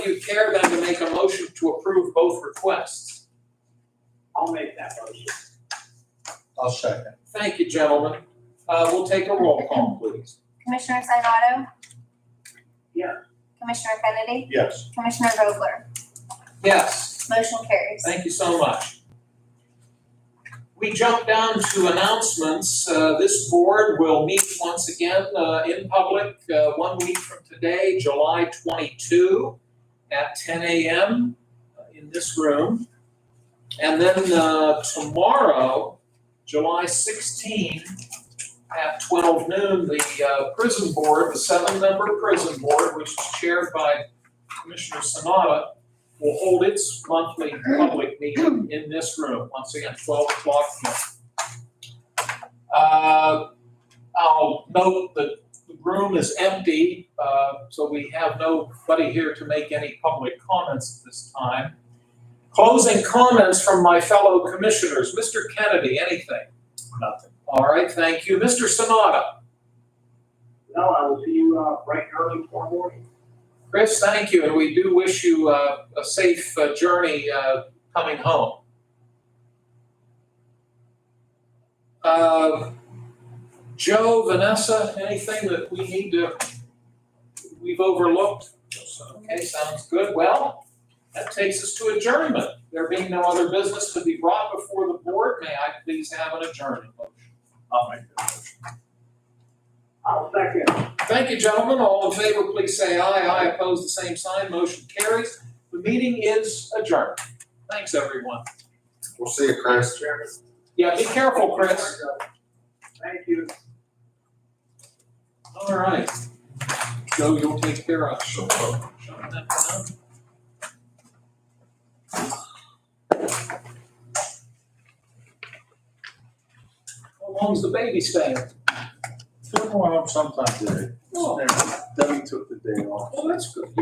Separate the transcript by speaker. Speaker 1: you care then to make a motion to approve both requests?
Speaker 2: I'll make that motion.
Speaker 3: I'll second.
Speaker 1: Thank you, gentlemen. Uh, we'll take a roll call, please.
Speaker 4: Commissioner Sanado?
Speaker 2: Yeah.
Speaker 4: Commissioner Kennedy?
Speaker 3: Yes.
Speaker 4: Commissioner Vogler?
Speaker 1: Yes,
Speaker 4: Motion carries.
Speaker 1: thank you so much. We jump down to announcements. Uh, this board will meet once again, uh, in public, uh, one week from today, July twenty-two at ten AM in this room. And then, uh, tomorrow, July sixteen, at twelve noon, the uh, prison board, the seven-member prison board, which is chaired by Commissioner Sanada, will hold its monthly public meeting in this room, once again, twelve o'clock. here. Uh, I'll note that the room is empty, uh, so we have nobody here to make any public comments at this time. Closing comments from my fellow commissioners. Mr. Kennedy, anything?
Speaker 3: Nothing.
Speaker 1: All right, thank you. Mr. Sonata.
Speaker 2: No, I will see you, uh, bright and early tomorrow morning.
Speaker 1: Chris, thank you, and we do wish you uh, a safe uh, journey uh, coming home. Uh, Joe, Vanessa, anything that we need to, we've overlooked? Okay, sounds good. Well, that takes us to adjournment. There being no other business to be brought before the board, may I please have an adjournment motion?
Speaker 3: I'll make the motion.
Speaker 2: I'll second.
Speaker 1: Thank you, gentlemen. All in favor, please say aye. Aye opposed, the same sign. Motion carries. The meeting is adjourned. Thanks, everyone.
Speaker 5: We'll see you, Chris.
Speaker 1: Yeah, be careful, Chris.
Speaker 2: Thank you.
Speaker 1: All right. Joe, you'll take care of. Shut that down. How long's the baby staying?
Speaker 3: Two more, sometime today.
Speaker 1: Oh,
Speaker 3: Debbie took the day off.
Speaker 1: well, that's good.